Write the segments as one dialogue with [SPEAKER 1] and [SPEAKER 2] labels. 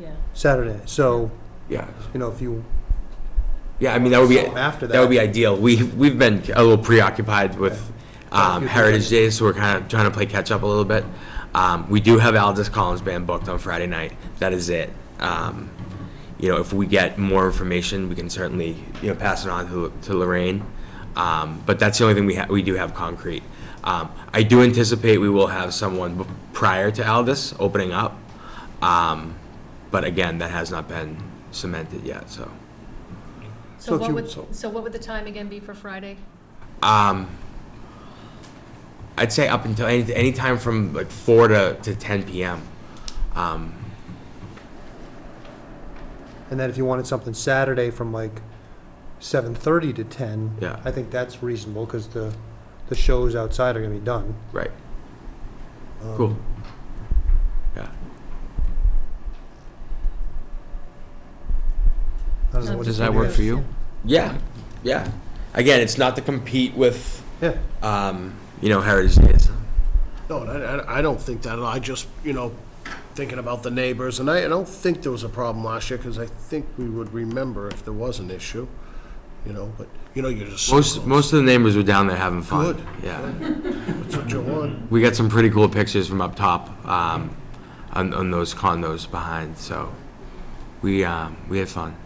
[SPEAKER 1] yeah.
[SPEAKER 2] Saturday. So,
[SPEAKER 3] Yeah,
[SPEAKER 2] you know, if you,
[SPEAKER 3] yeah, I mean, that would be,
[SPEAKER 2] So after
[SPEAKER 3] that would be
[SPEAKER 2] that-
[SPEAKER 3] ideal. We, we've been a little preoccupied with
[SPEAKER 2] Thank
[SPEAKER 3] um,
[SPEAKER 2] you.
[SPEAKER 3] Heritage Days, so we're kind of trying to play catch-up a little bit. Um, We do have Aldous Collins Band booked on Friday night. That is it. Um, You know, if we get more information, we can certainly, you know, pass it on to to Lorraine. Um, But that's the only thing we, ha- we do have concrete. Um, I do anticipate we will have someone b- prior to Aldous opening up. Um, But again, that has not been cemented yet, so.
[SPEAKER 2] So
[SPEAKER 1] So
[SPEAKER 2] if
[SPEAKER 1] what
[SPEAKER 2] you-
[SPEAKER 1] would,
[SPEAKER 2] so-
[SPEAKER 1] so what would the time again be for Friday?
[SPEAKER 3] Um, I'd say up until any, any time from like four to, to ten PM. Um,
[SPEAKER 2] and then if you wanted something Saturday from like 7:30 to 10,
[SPEAKER 3] Yeah.
[SPEAKER 2] I think that's reasonable because the, the shows outside are going to be done.
[SPEAKER 3] right,
[SPEAKER 2] Um,
[SPEAKER 3] cool. Yeah,
[SPEAKER 2] I don't know what
[SPEAKER 4] Does
[SPEAKER 2] it's
[SPEAKER 4] that
[SPEAKER 2] gonna
[SPEAKER 4] work
[SPEAKER 2] be.
[SPEAKER 4] for you?
[SPEAKER 3] yeah, yeah. Again, it's not to compete with,
[SPEAKER 2] Yeah.
[SPEAKER 3] um, you know, Heritage Days.
[SPEAKER 5] No, I, I- I don't think that, at all. I just, you know, thinking about the neighbors, and I, I don't think there was a problem last year, because I think we would remember if there was an issue, you know, but, you know, you're just. so
[SPEAKER 3] Most,
[SPEAKER 5] close.
[SPEAKER 3] most of the neighbors were down there having fun.
[SPEAKER 5] Good.
[SPEAKER 3] Yeah,
[SPEAKER 5] That's what you want.
[SPEAKER 3] we got some pretty cool pictures from up top, um, on, on those condos behind, so we, um, we had fun.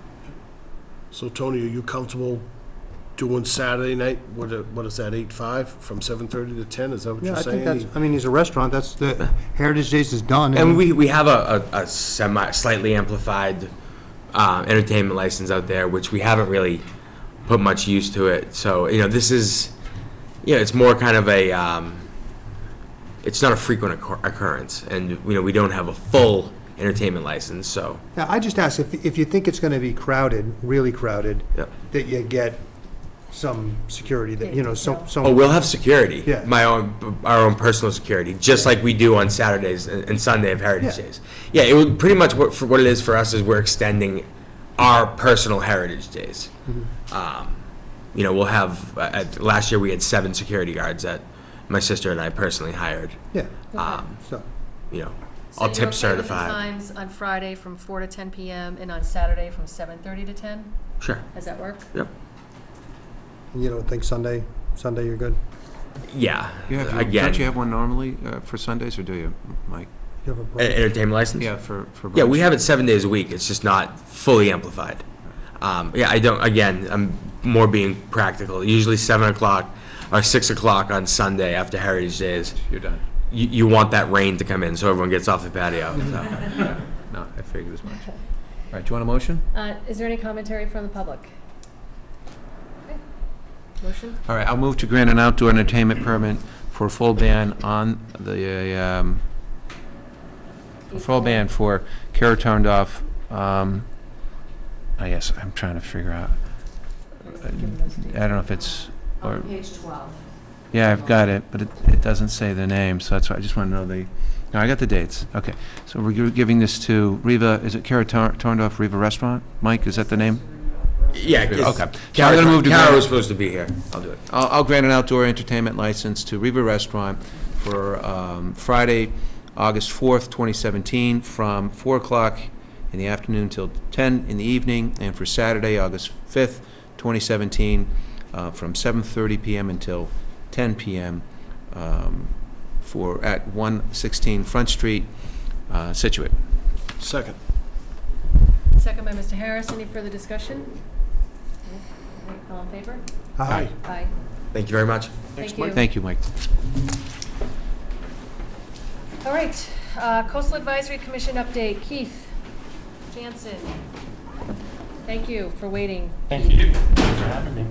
[SPEAKER 5] So Tony, are you comfortable doing Saturday night, what, i- what is that, eight, five, from seven thirty to ten, is that what
[SPEAKER 2] Yeah,
[SPEAKER 5] you're
[SPEAKER 2] I think
[SPEAKER 5] saying?
[SPEAKER 2] that's, I mean, he's a restaurant, that's, the Heritage Days is done.
[SPEAKER 3] And we, we have a, a, a semi, slightly amplified, um, entertainment license out there, which we haven't really put much use to it, so, you know, this is, you know, it's more kind of a, um, it's not a frequent occur- occurrence, and, you know, we don't have a full entertainment license, so,
[SPEAKER 2] Now, I just ask, if, if you think it's gonna be crowded, really crowded,
[SPEAKER 3] Yep.
[SPEAKER 2] that you get some security, that, you know, some, some.
[SPEAKER 3] oh, we'll have security.
[SPEAKER 2] Yeah.
[SPEAKER 3] My own, our own personal security, just like we do on Saturdays and and Sunday of Heritage
[SPEAKER 2] Yeah.
[SPEAKER 3] Days. Yeah, it would, pretty much what, for what it is for us is we're extending our personal Heritage Days. Um, You know, we'll have, uh, uh, last year we had seven security guards that my sister and I personally hired,
[SPEAKER 2] Yeah,
[SPEAKER 3] Um,
[SPEAKER 2] so,
[SPEAKER 3] you know,
[SPEAKER 1] So
[SPEAKER 3] all
[SPEAKER 1] you're
[SPEAKER 3] tip
[SPEAKER 1] okay with the
[SPEAKER 3] certified.
[SPEAKER 1] Times on Friday from four to ten PM and on Saturday from seven thirty to ten?
[SPEAKER 3] Sure,
[SPEAKER 1] Does that work?
[SPEAKER 3] yep,
[SPEAKER 2] and you don't think Sunday, Sunday you're good?
[SPEAKER 3] yeah,
[SPEAKER 4] You have your-
[SPEAKER 3] again,
[SPEAKER 4] Don't you have one normally uh, for Sundays, or do you, Mike?
[SPEAKER 2] You have a
[SPEAKER 3] en-
[SPEAKER 2] problem?
[SPEAKER 3] e-, entertainment license?
[SPEAKER 4] Yeah, for, for brunch?
[SPEAKER 3] Yeah, we have it seven days a week, it's just not fully amplified. Um, yeah, I don't, again, I'm more being practical, usually seven o'clock or six o'clock on Sunday after Heritage Days.
[SPEAKER 4] You're done.
[SPEAKER 3] You, you want that rain to come in, so everyone gets off the patio, so.
[SPEAKER 4] No, I figured as much. All right, do you want a motion?
[SPEAKER 1] Uh, is there any commentary from the public? Okay. Motion?
[SPEAKER 4] All right, I'll move to grant an outdoor entertainment permit for a full ban on the, um, a full ban for Kara turned off, um, I guess, I'm trying to figure out, uh, I don't know if it's, or,
[SPEAKER 6] Page 12.
[SPEAKER 4] yeah, I've got it, but it, it doesn't say the name, so that's why I just want to know the, no, I got the dates, okay. So we're gi- giving this to Riva, is it Kara turned off Riva Restaurant? Mike, is that the name?
[SPEAKER 3] Yeah, it's-
[SPEAKER 4] Okay. So I'm
[SPEAKER 3] Kara,
[SPEAKER 4] gonna move to
[SPEAKER 3] Kara
[SPEAKER 4] Grant-
[SPEAKER 3] was supposed to be here. I'll do it.
[SPEAKER 4] I'll, I'll grant an outdoor entertainment license to Riva Restaurant for um, Friday, August 4th, 2017, from 4 o'clock in the afternoon till 10 in the evening, and for Saturday, August 5th, 2017, uh, from 7:30 PM until 10 PM um, for, at 116 Front Street, uh, Situate.
[SPEAKER 5] Second.
[SPEAKER 1] Second by Mr. Harris. Any further discussion? No? All in favor?
[SPEAKER 2] Hi.
[SPEAKER 1] Aye.
[SPEAKER 3] Thank you very much.
[SPEAKER 1] Thank you.
[SPEAKER 4] Thank you, Mike.
[SPEAKER 1] All right, uh, Coastal Advisory Commission update, Keith Jansen. Thank you for waiting.
[SPEAKER 7] Thank you for having me.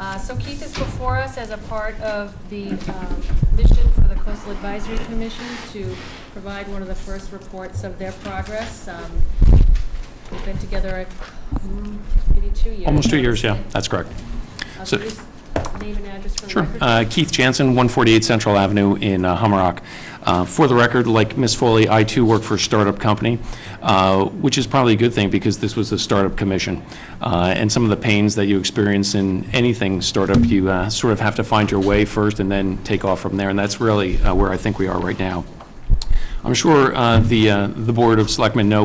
[SPEAKER 1] Uh, So Keith is before us as a part of the um, mission for the Coastal Advisory Commission to provide one of the first reports of their progress. Um, We've been together mm, maybe two years.
[SPEAKER 7] Almost two years, yeah, that's correct.
[SPEAKER 1] Uh,
[SPEAKER 7] so-
[SPEAKER 1] can you just Name and address for the
[SPEAKER 7] Sure.
[SPEAKER 1] record.
[SPEAKER 7] Uh, Keith Jansen, 148 Central Avenue in uh, Hummerock. Uh, For the record, like Ms. Foley, I too work for a startup company, uh, which is probably a good thing because this was a startup commission. Uh, And some of the pains that you experience in anything startup, you uh, sort of have to find your way first and then take off from there. And that's really uh, where I think we are right now. I'm sure uh, the, uh, the Board of Selectmen know